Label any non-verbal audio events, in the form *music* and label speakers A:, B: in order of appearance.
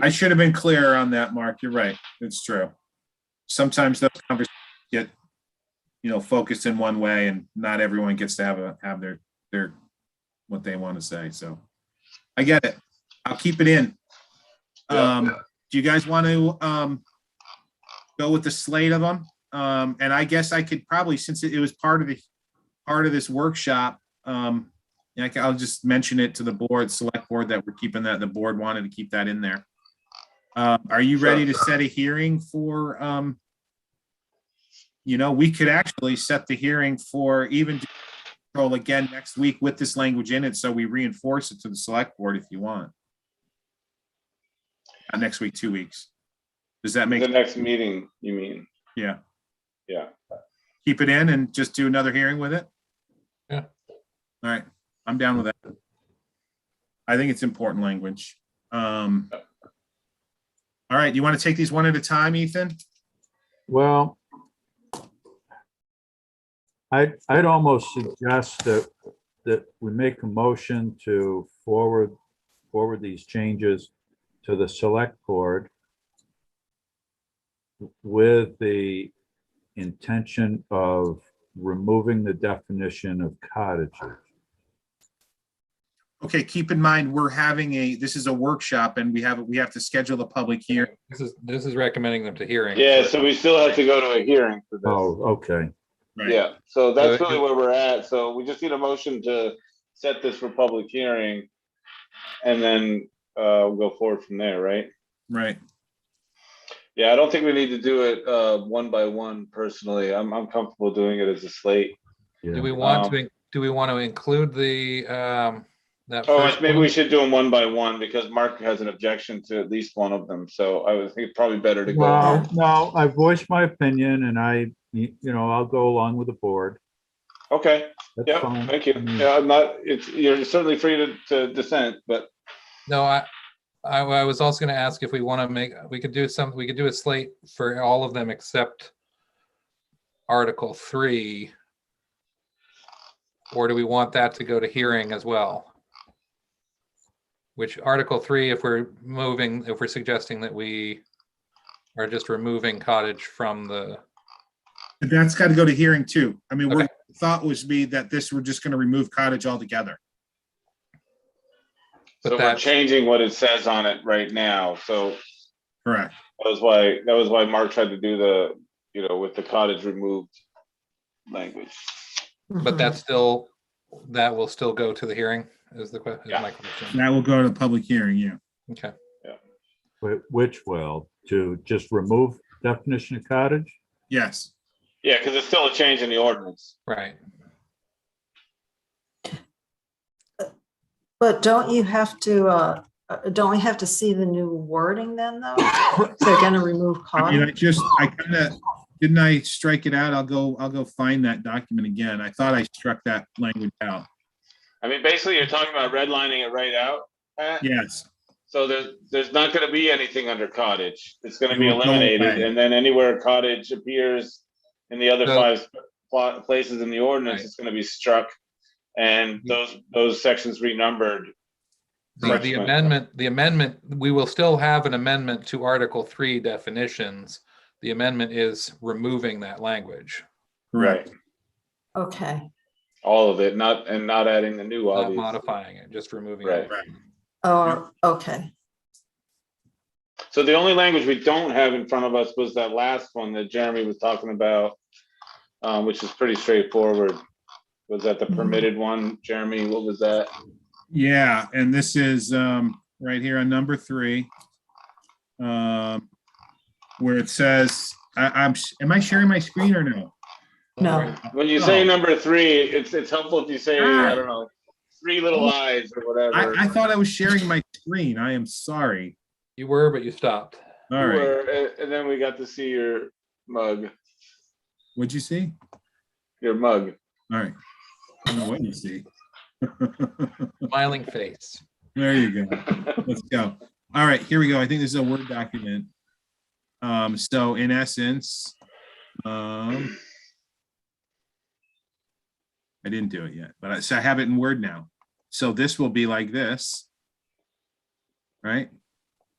A: I should have been clearer on that, Mark. You're right. It's true. Sometimes those conversations get, you know, focused in one way and not everyone gets to have a, have their, their, what they want to say. So I get it. I'll keep it in.
B: Yeah.
A: Um, do you guys want to, um, go with the slate of them? Um, and I guess I could probably, since it it was part of the, part of this workshop, um, yeah, I ca- I'll just mention it to the board, select board, that we're keeping that, the board wanted to keep that in there. Um, Are you ready to set a hearing for, um, you know, we could actually set the hearing for even control again next week with this language in it, so we reinforce it to the select board if you want. Uh, Next week, two weeks. Does that
B: The
A: make,
B: next meeting, you mean?
A: yeah,
B: Yeah,
A: keep it in and just do another hearing with it?
C: Yeah.
A: All right, I'm down with that. I think it's important language. Um, all right, you want to take these one at a time, Ethan?
C: Well, I, I'd almost suggest that, that we make a motion to forward, forward these changes to the select board with the intention of removing the definition of cottages.
A: Okay, keep in mind, we're having a, this is a workshop and we have, we have to schedule a public hearing.
D: This is, this is recommending them to hearing.
B: yeah, so we still have to go to a hearing for this.
C: Oh, okay.
A: right?
B: Yeah, so that's
D: So-
B: really where we're at. So we just need a motion to set this for public hearing. And then uh, we'll go forward from there, right?
A: Right,
B: Yeah, I don't think we need to do it uh, one by one personally. I'm, I'm comfortable doing it as a slate.
D: Do
C: Yeah.
D: we want
B: Um,
D: to, do we want to include the, um, that?
B: Oh,
D: first
B: maybe
D: one?
B: we should do them one by one because Mark has an objection to at least one of them. So I would think it's probably better to go.
C: Well, no, I voiced my opinion and I, you you know, I'll go along with the board.
B: Okay,
C: That's
B: yeah,
C: fine. Mm.
B: thank you.
C: I mean-
B: Yeah, I'm not, it's, you're certainly free to, to dissent, but
D: No, I, I, I was also gonna ask if we want to make, we could do some, we could do a slate for all of them except Article three. Or do we want that to go to hearing as well? Which Article three, if we're moving, if we're suggesting that we are just removing cottage from the,
A: But that's got to go to hearing too. I mean, we're,
D: Okay.
A: thought was be that this, we're just going to remove cottage altogether.
D: But
B: so we're
D: that's-
B: changing what it says on it right now. So
A: Correct.
B: that was why, that was why Mark tried to do the, you know, with the cottage removed language.
E: Mm-hmm.
D: but that's still, that will still go to the hearing is the question, is
B: Yeah.
D: my question.
A: That will go to the public hearing, yeah.
D: Okay,
C: Wh- Which will, to just remove definition of cottage?
A: Yes.
B: Yeah, because it's still a change in the ordinance.
D: right.
E: But don't you have to, uh, uh, don't we have to see the new wording then, though? They're gonna remove
A: I mean,
E: cottage?
A: I just, I kind of, didn't I strike it out? I'll go, I'll go find that document again. I thought I struck that language out.
B: I mean, basically, you're talking about redlining it right out. Pat?
A: Yes,
B: So there's, there's not gonna be anything under cottage. It's gonna be
A: It will go
B: eliminated,
A: away.
B: and then anywhere cottage appears in the other
D: So-
B: five sp- pla- places in the ordinance,
D: Right. Mm.
B: it's gonna be struck. And those, those sections renumbered.
D: The
A: Correct.
D: the amendment, the amendment, we will still have an amendment to Article Three definitions. The amendment is removing that language,
A: correct.
E: Okay,
B: All of it, not, and not adding the new,
D: not
B: obviously.
D: modifying it, just removing
B: Right.
D: it.
E: oh, okay,
B: So the only language we don't have in front of us was that last one that Jeremy was talking about, um, which is pretty straightforward. Was that the
D: Mm-hmm.
E: Mhm.
B: permitted one? Jeremy, what was that?
A: Yeah, and this is, um, right here on number three. Um, where it says, I, I'm, s- am I sharing my screen or no?
E: no,
B: When you say
A: Oh.
B: number three, it's, it's helpful if you say, I
A: Ah.
B: don't know, three little eyes or whatever.
A: I, I thought I was sharing my screen. I am sorry.
D: You were, but you stopped.
A: All
B: You
A: right,
B: were- And and then we got to see your mug,
A: what'd you see?
B: your mug.
A: All right. I don't know what you see. *laughs*
D: Smiling face.
A: There you go. Let's go. All right, here we go. I think this is a Word document. Um, so in essence, um, I didn't do it yet, but I, so I have it in Word now. So this will be like this. Right?